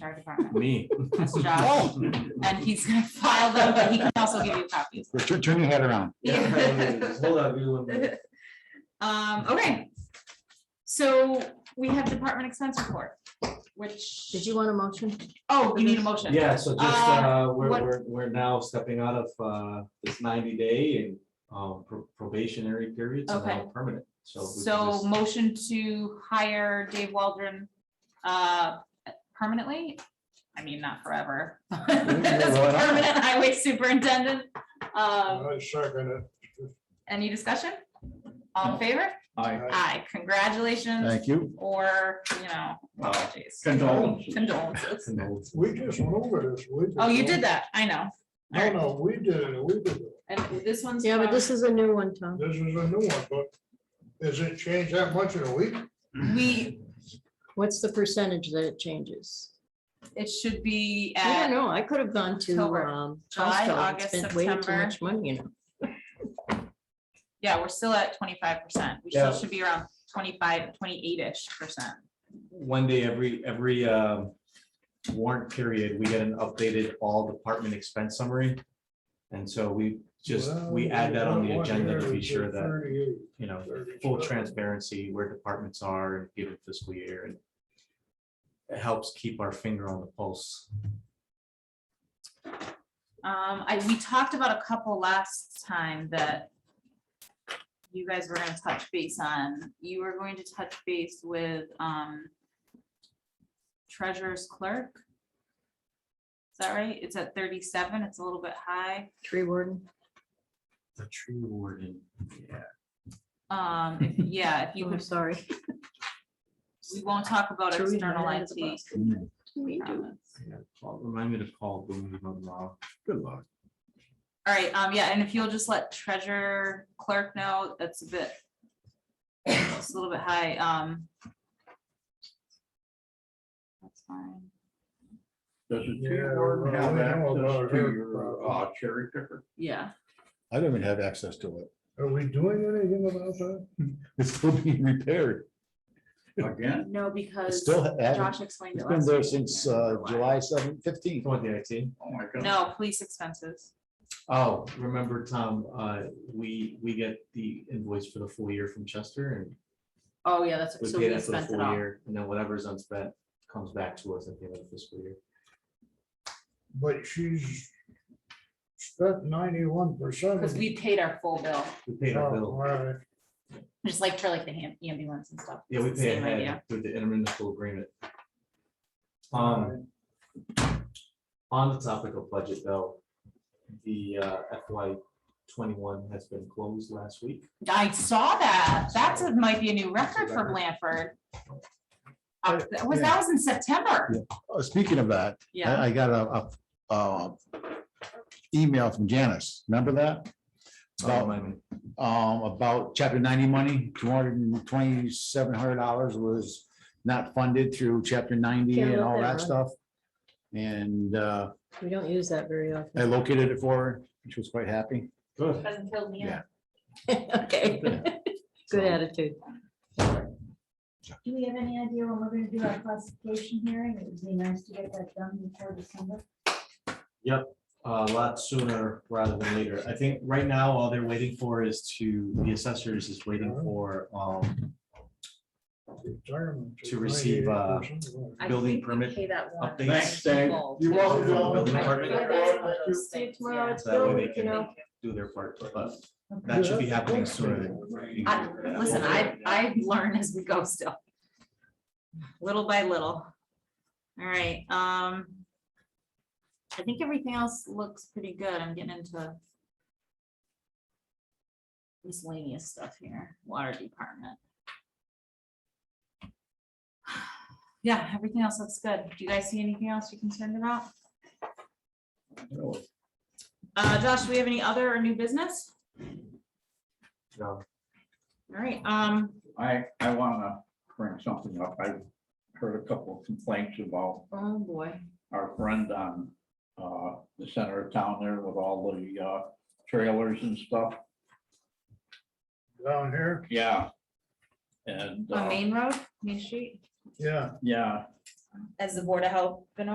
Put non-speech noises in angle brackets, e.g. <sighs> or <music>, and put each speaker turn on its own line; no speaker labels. HR department.
Me. <laughs>
That's his job. And he's gonna file them, but he can also give you copies.
Turn, turn your head around.
<laughs> Yeah.
Hold on, give me
<laughs>
one minute.
Um, okay. So we have department expense report, which.
Did you want a motion?
Oh, you need a motion.
Yeah, so just,
Uh,
uh, we're,
what-
we're, we're now stepping out of, uh, this ninety day and, um, pro- probationary periods and now
Okay.
permanent, so. we can
So
just-
motion to hire Dave Waldron, uh, permanently? I mean, not forever. <laughs> As a Permanent highway superintendent. Um,
I second it.
any discussion? All in favor? Aye, congratulations
Thank you.
or, you know, apologies,
Condolences.
condolences.
Condolences.
We just went over this. We
Oh, you
just-
did that, I know.
No, no, we did it. We did it.
And this one's.
Yeah, but
from-
<clears throat> this is a new one, Tom.
This is a new one, but does it change that much in a week?
We,
What's the percentage that it changes?
it should be
I don't
at,
know. I could have gone to,
October,
um,
July,
Costco and
August,
spent way too
September.
much money, you know.
yeah, we're still at twenty-five percent. We
Yeah.
still should be around 25, 28 ish percent.
One day every, every, um, warrant period, we get an updated all department expense summary. And so we just, we
Well,
add that on the
one
agenda to
here
be
is
sure that,
38,
you know,
37.
full transparency where departments are and give it fiscal year and it helps keep our finger on the pulse.
Um, I, we talked about a couple last time that you guys were gonna touch base on. You were going to touch base with, um, treasurer's clerk. Is that right? It's at thirty-seven. It's a little bit high.
Tree warden.
The tree warden. Yeah.
Um, if- yeah, if you
Oh, I'm
could,
sorry.
we won't talk about
Tree
external
warden out of the
IT.
box. We do.
yeah. Well, Remind me to call Boone if I'm wrong.
Good luck.
All right, um, yeah, and if you'll just let treasurer clerk know, that's a bit. It's a little bit high, um. That's fine.
Does the tree
Yeah,
warden
well,
have
we know
access
about
to
her
your
problem.
uh, cherry picker?
Yeah.
I don't even have access to it.
Are we doing anything about that?
It's still being repaired.
Again,
No,
It's
because
still, ha-
Josh explained
it's
it
been
last.
there
week.
since
Yeah,
uh,
why.
July seventh,
You
fifteenth.
want the IT?
oh my God.
No, police expenses.
Oh, remember, Tom, uh, we, we get the invoice for the full year from Chester and
Oh, yeah, that's,
we
so
pay
we
that for the
spent it
full
all.
year. And then whatever's unspent comes back to us at the end of the fiscal year.
But she's spent ninety-one percent.
Because we paid our full bill,
We paid our bill.
just like for like the E am- ambulance and stuff.
Yeah, we
It's the
pay
same idea.
ahead through the intermunicipal agreement. Um, on the topic of budget though, the uh, FY twenty-one has been closed last week.
I saw that. That's, a- might be a new record for Blanford. Uh, That was, that was in September.
Uh, Speaking of that,
Yeah,
I, I got a, a, uh, email from Janice. Remember that? About
Um,
um, about chapter ninety money, two hundred and twenty-seven hundred dollars was not funded through chapter ninety
Yeah, I
and
wrote
all
that
that
one.
stuff. And, uh,
We don't use that very
I
often.
located it for her. She was quite happy.
Good.
Hasn't killed me
Yeah.
yet.
<laughs> Okay, good attitude.
Do we have any idea when we're gonna do our classification hearing? It would be nice to get that done before December.
uh, a lot sooner rather than later. I think right now, all they're waiting for is to, the assessors is waiting for, um, To receive, uh,
I
building
think we
permit
Pay that one.
updates. Thanks,
Dave.
Full.
You're welcome,
Bill. Building
I
permit.
feel that's one of those
See you
things,
tomorrow.
yeah.
It's
So that way they
building, you
can
know.
do their part, but that should be happening sooner. than-
I- Listen, I, I learn as we go still. Little by little. All right, um. I think everything else looks pretty good. I'm getting into. Miscellaneous stuff here, water department. <sighs> Yeah, everything else looks good. Do you guys see anything else you're concerned about? Uh, Josh, do we have any other or new business?
No.
All right, um,
I, I wanna bring something up. I heard a couple of complaints about
oh boy.
our friend on, uh, the center of town there with all the, uh, trailers and stuff.
Down here,
Yeah. And,
On
uh,
Main Road, Main Street?
yeah.
yeah,
as the Board of Health been